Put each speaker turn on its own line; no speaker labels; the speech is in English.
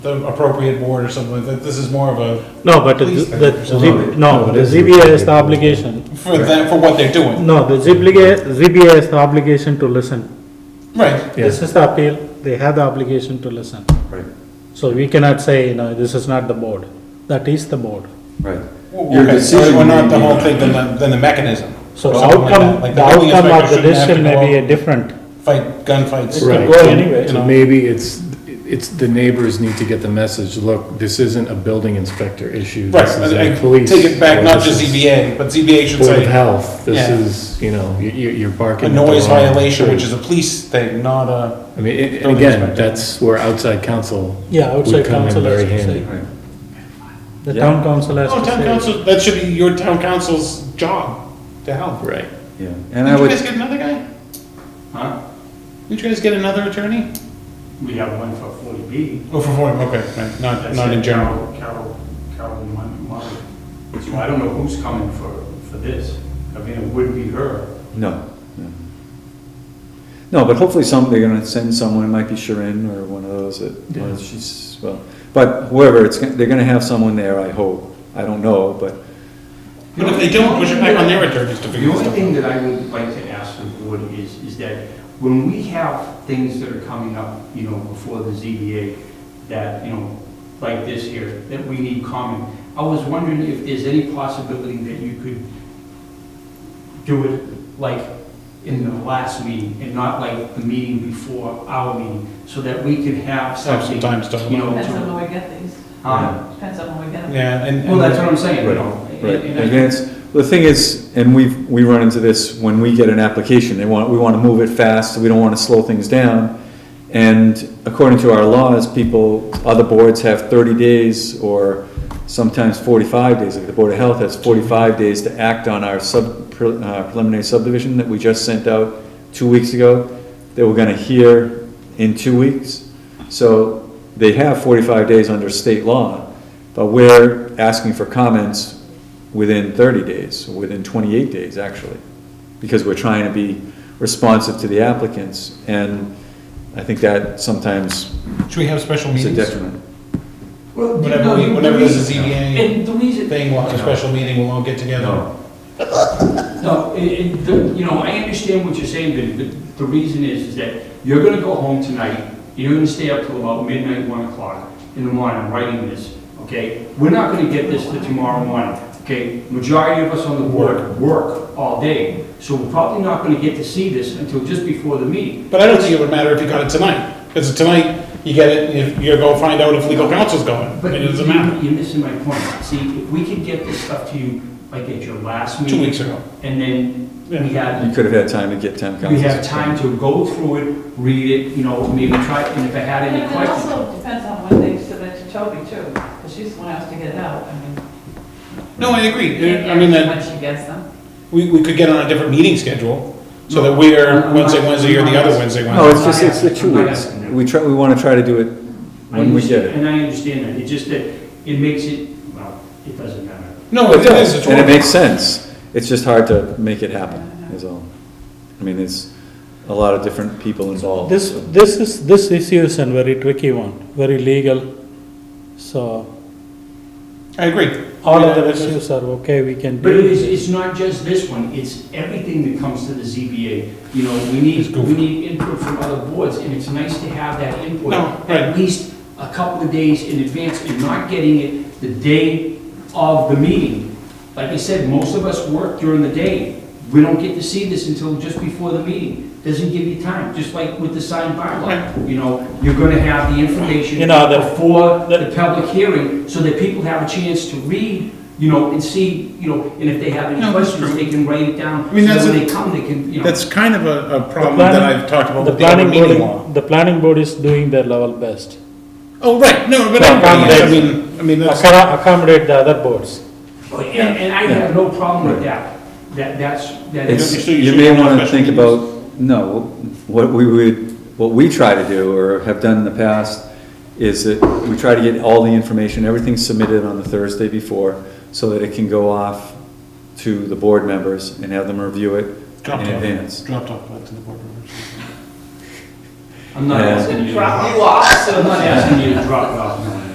the appropriate board or something like that. This is more of a,
No, but the,
Please,
the,
thank
Z- no, the ZBA has the obligation,
for them, for what they're doing.
no, the ZBA, ZBA has the obligation to listen.
Right,
This is the appeal, they have the obligation to listen.
Right,
So we cannot say, you know, this is not the board, that is the board.
right. Your
okay, so
decision
we're not
may
the
be-
whole thing, then the, then the mechanism.
So
or
the
something like
outcome,
that. Like
the
building
outcome of
inspector
the
shouldn't have to
decision
go
may
out
be different.
and Fight gunfights.
Right.
Right.
go
and-
anyway, you know.
And maybe it's, it's, the neighbors need to get the message, look, this isn't a building inspector issue.
Right,
This is
I-
a
I
police.
take it back,
or
not
this
just E
is
ZBA, but ZBA should
Board of
say
Health, this
Yeah.
is, you know, you, you- you're
a
barking. at the
noise
wrong
violation,
tree.
which is a police thing, not a,
I mean, it-
building
again,
inspector.
that's where outside counsel
Yeah, outside
would come in
council
very
has to
handy.
say,
Right.
the town council has
oh,
to
town
say.
council, that should be your town council's job to help.
Right.
Yeah, and I
Did you guys
would,
get another guy?
Huh?
Did you guys get another attorney?
We have one for forty B.
Oh, for form, okay, right, not, not in general.
Carol, Carol Mon- Murray. So I don't know who's coming for, for this. I mean, it would be her.
no. no. No, but hopefully some, they're gonna send someone, it might be Sharon or one of those that, well, she's, well, but whoever, it's, gonna- they're gonna have someone there, I hope. I don't know, but,
But if they don't, push it back on their attorneys to
The
figure
only
stuff
thing
out.
that I would like to ask the board is, is that when we have things that are coming up, you know, before the ZBA, that, you know, like this here, that we need comment, I was wondering if there's any possibility that you could do it like in the last meeting and not like the meeting before our meeting, so that we could have
Have some
something,
time to
you
talk.
know,
Depends
to-
on when we get these,
Huh?
depends on when we get them.
Yeah, and.
well, that's what I'm saying, you
Right,
know. and-
right.
and I-
And that's, the thing is, and we've, we run into this when we get an application, they want, we wanna move it fast, we don't wanna slow things down. And according to our laws, people, other boards have thirty days or sometimes forty-five days. Like the Board of Health has forty-five days to act on our sub, pre- uh, preliminary subdivision that we just sent out two weeks ago, that we're gonna hear in two weeks. So they have forty-five days under state law, but we're asking for comments within thirty days, within twenty-eight days, actually, because we're trying to be responsive to the applicants, and I think that sometimes
Should we have special
is a
meetings?
detriment.
Well, you
Whenever
know,
we,
the
whenever there's a
reason-
ZBA
And the reason,
thing, we'll have a special meeting, we'll all get together.
No, it, it, the- you know, I understand what you're saying, Vinny, but the reason is, is that you're gonna go home tonight, you're gonna stay up till about midnight, one o'clock in the morning writing this, okay? We're not gonna get this to tomorrow morning, okay? Majority of us on the board work all day, so we're probably not gonna get to see this until just before the meeting.
But I don't think it would matter if you got it tonight, because tonight, you get it, and you- you're gonna find out if legal counsel's going,
But
it doesn't matter.
you- You're missing my point. See, if we could get this stuff to you, like at your last meeting.
Two weeks ago.
And then we had
You could have had time to get town council.
We have time to go through it, read it, you know, maybe try, and if I had
And
any
it
questions.
also depends on when they submit to Toby too, because she's the one who has to get it out, I mean.
No, I agree,
you can't
I mean,
guarantee
that,
When she gets them.
we, we could get on a different meeting schedule, so that we're
No.
Wednesday, Wednesday, or the other Wednesday,
No,
Wednesday.
it's just, it's the two
I'm not
weeks,
asking that.
we try, we wanna try to do it when we get it.
And I understand that, it's just that it makes it, well, it doesn't matter.
No, it
It
is,
does,
it's
and it
one,
makes sense, it's just hard to make it happen, is all. I mean, there's a lot of different people involved.
This,
so.
this is, this issue is a very tricky one, very legal, so
I agree.
all
Yeah,
other
it's-
issues are okay, we can
But
deal
it's,
with it.
it's not just this one, it's everything that comes to the ZBA. You know, we need,
goofy.
we need input from other boards, and it's nice to have that input
No, right.
at least a couple of days in advance, and not getting it the day of the meeting. Like I said, most of us work during the day. We don't get to see this until just before the meeting. Doesn't give you time, just like with the signed bylaw. You know, you're gonna have the information
You know, the-
before
the-
the public hearing, so that people have a chance to read, you know, and see, you know, and if they have any
No, that's
questions,
true.
they can write it down.
I mean,
so
that's
When
a-
they come, they can, you know.
That's kind of a, a problem
planning-
that I've talked about
The
with the other
planning
meeting law.
board, the planning board is doing their level best.
Oh, right, no, but
To
I, I
accommodate.
mean, I mean, that's,
Accom- Accommodate the other boards.
Oh, And, and I have no problem with that. That, that's, that is.
It's,
You should- you
you may
should have
wanna
special
think
meetings.
about, no, what we would, what we try to do or have done in the past is that we try to get all the information, everything submitted on the Thursday before, so that it can go off to the board members and have them review it in
Drop down.
advance.
dropped off back to the board members.
I'm not
Yeah.
asking you. to-
you off,
I'm not asking you to drop it off.